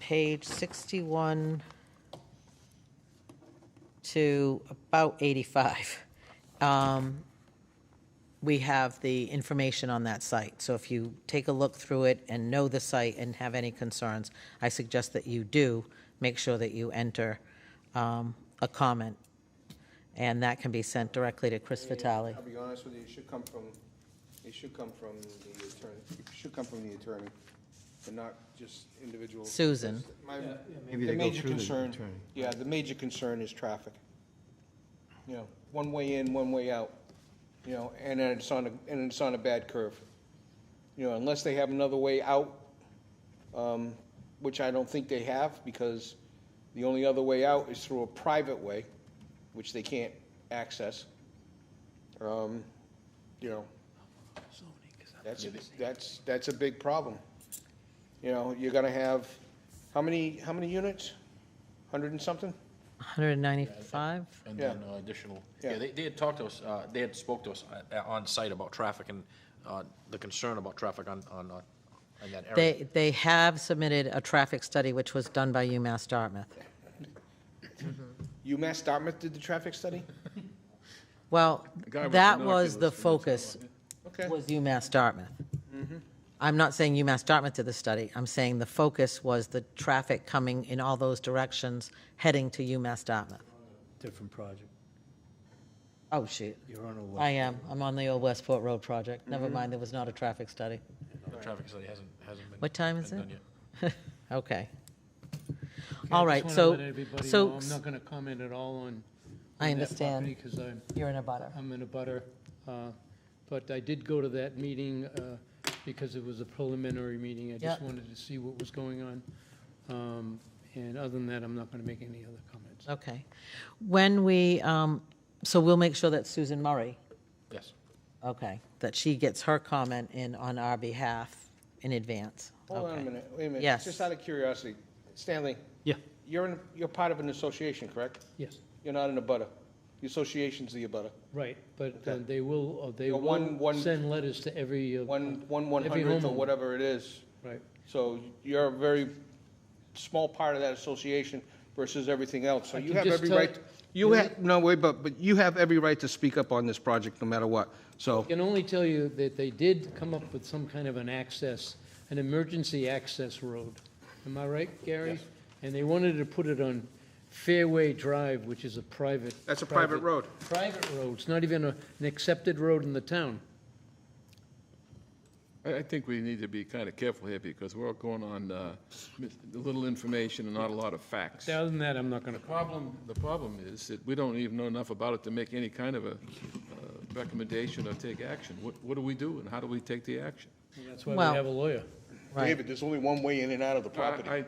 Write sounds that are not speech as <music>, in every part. page 61 to about 85, um, we have the information on that site. So if you take a look through it and know the site and have any concerns, I suggest that you do make sure that you enter um, a comment. And that can be sent directly to Chris Vitale. I'll be honest with you, it should come from, it should come from the attorney, it should come from the attorney, and not just individual. Susan. My- Maybe the they go major through the concern- attorney. Yeah, the major concern is traffic. You know, one way in, one way out, you know, and then it's on, a and it's on a bad curve. You know, unless they have another way out, um, which I don't think they have, because the only other way out is through a private way, which they can't access. Um, You know, that's, a- that's, that's a big problem. You know, you're gonna have, how many, how many units? Hundred and something? 195? And Yeah. then uh, additional, Yeah. yeah, they, they had talked to us, uh, they had spoke to us uh, on site about traffic and uh, the concern about traffic on, on, uh, on that area. They, they have submitted a traffic study, which was done by UMass Dartmouth. UMass Dartmouth did the traffic study? Well, guy with that was the binoculars from the focus, Okay. was UMass Dartmouth. I'm not saying UMass Dartmouth did the study. I'm saying the focus was the traffic coming in all those directions, heading to UMass Dartmouth. Different project. Oh, shoot. You're on a I west. am. I'm on the old Westport Road project. Never mind, there was not a traffic study. The traffic study hasn't, hasn't been. What time is been it? done yet. <laughs> Okay. Okay, All I right, just wanna so- let everybody so- know I'm not going to comment at all on. I understand. Because I'm, You're in a butter. I'm in a butter. uh, But I did go to that meeting uh, because it was a preliminary meeting. I just Yeah. wanted to see what was going on. Um, And other than that, I'm not going to make any other comments. Okay. When we, um, so we'll make sure that Susan Murray Yes. Okay, that she gets her comment in on our behalf in advance. Hold on a Okay. minute, wait a minute. Yes. Just out of curiosity, Stanley, Yeah, you're in, you're part of an association, correct? yes, You're not in a butter. The association's the abutter. right, but uh, Okay. they will, uh, they Yeah, one- will one- send letters to every. uh, One, one one Every hundredth or homeowner. whatever it is. Right, So you're a very small part of that association versus everything else. So I you can have just every tell- right, you have, no, wait, but, but you have every right to speak up on this project no matter what. So. can only tell you that they did come up with some kind of an access, an emergency access road. Am I right, Gary? Yes. And they wanted to put it on Fairway Drive, which is a private. That's a private road. Private road. It's not even a- an accepted road in the town. I, I think we need to be kind of careful here because we're all going on uh, mis- little information and not a lot of facts. Other than that, I'm not going to. Problem, the problem is that we don't even know enough about it to make any kind of a uh, recommendation or take action. What, what do we do and how do we take the action? That's why Well- we have a lawyer. Right. David, there's only one way in and out of the property. I-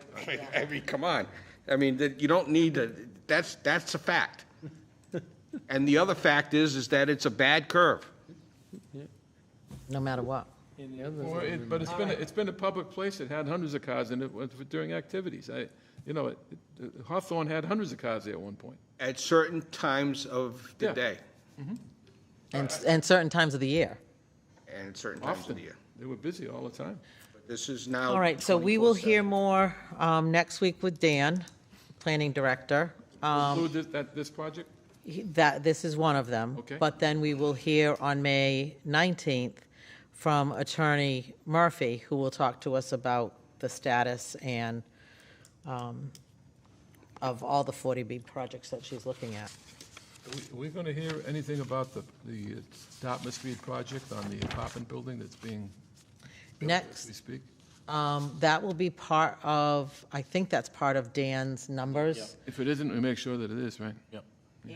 <laughs> I mean, come on. I mean, that, you don't need to, that's, that's a fact. And the other fact is, is that it's a bad curve. No matter what. And the other Or it- But it's been, a- it's been a public place that had hundreds of cars in it was- during activities. I, you know, it- it- Hawthorne had hundreds of cars there at one point. At certain times of the Yeah. day And, and certain times of the year. and at certain times of the Often, year. they were busy all the time. But This is now. All right, so we will hear 24/7. more um, next week with Dan, Planning Director. Um, Include this, that, this project? He- That, this is one of them. Okay. But then we will hear on May 19th from Attorney Murphy, who will talk to us about the status and um, of all the 40B projects that she's looking at. Are we going to hear anything about the, the uh, Dartmouth Street project on the apartment building that's being built Next. as we speak? Um, That will be part of, I think that's part of Dan's numbers. If it isn't, we make sure that it is, right? Yep.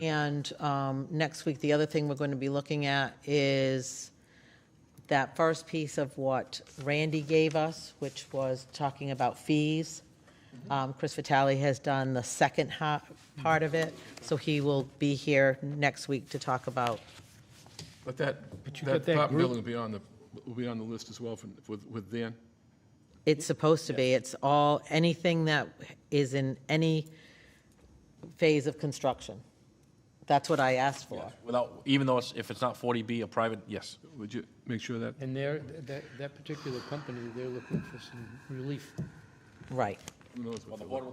And um, next week, the other thing we're going to be looking at is that first piece of what Randy gave us, which was talking about fees. Um, Chris Vitale has done the second ha- part of it, so he will be here next week to talk about, But that, you got that that apartment group- building will be on the, will be on the list as well from- with, with Dan? it's supposed to be, it's all, anything that is in any phase of construction. That's what I asked for. Without, even though it's, if it's not 40B, a private, yes. Would you make sure that, And they're, that, that particular company, they're looking for some relief. Right. who knows Well, what the they're board will